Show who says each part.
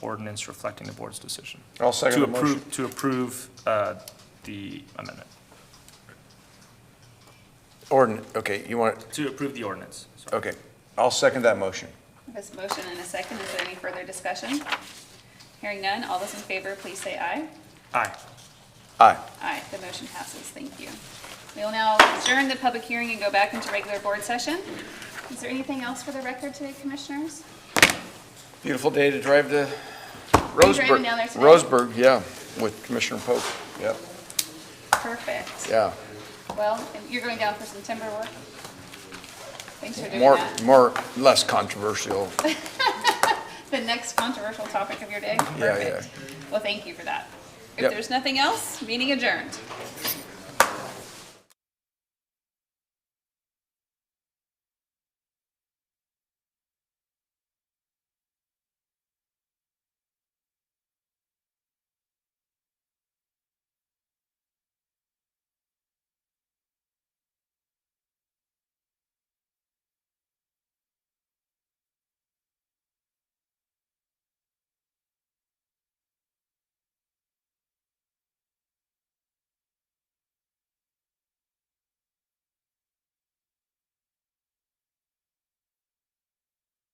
Speaker 1: ordinance reflecting the board's decision.
Speaker 2: I'll second
Speaker 1: To
Speaker 2: the motion.
Speaker 1: approve, to approve uh, the amendment,
Speaker 2: Ordin, okay, you want,
Speaker 1: to approve the ordinance. sorry.
Speaker 2: okay, I'll second that motion.
Speaker 3: There's a motion and a second. Is there any further discussion? Hearing none, all those in favor, please say aye.
Speaker 1: Aye.
Speaker 2: Aye.
Speaker 3: Aye, the motion passes. Thank you. We will now adjourn the public hearing and go back into regular board session. Is there anything else for the record today, commissioners?
Speaker 2: Beautiful day to drive to
Speaker 3: you driving
Speaker 2: Roseburg.
Speaker 3: down there today?
Speaker 2: Roseburg, yeah, with Commissioner Pope. Yep,
Speaker 3: Perfect.
Speaker 2: yeah.
Speaker 3: Well, and you're going down for some timber work? Thanks for doing
Speaker 2: More,
Speaker 3: that.
Speaker 2: more, less controversial.
Speaker 3: The next controversial topic of your day?
Speaker 2: Yeah, yeah.
Speaker 3: Perfect. Well, thank you for that. If
Speaker 2: Yep.
Speaker 3: there's nothing else, meeting adjourned.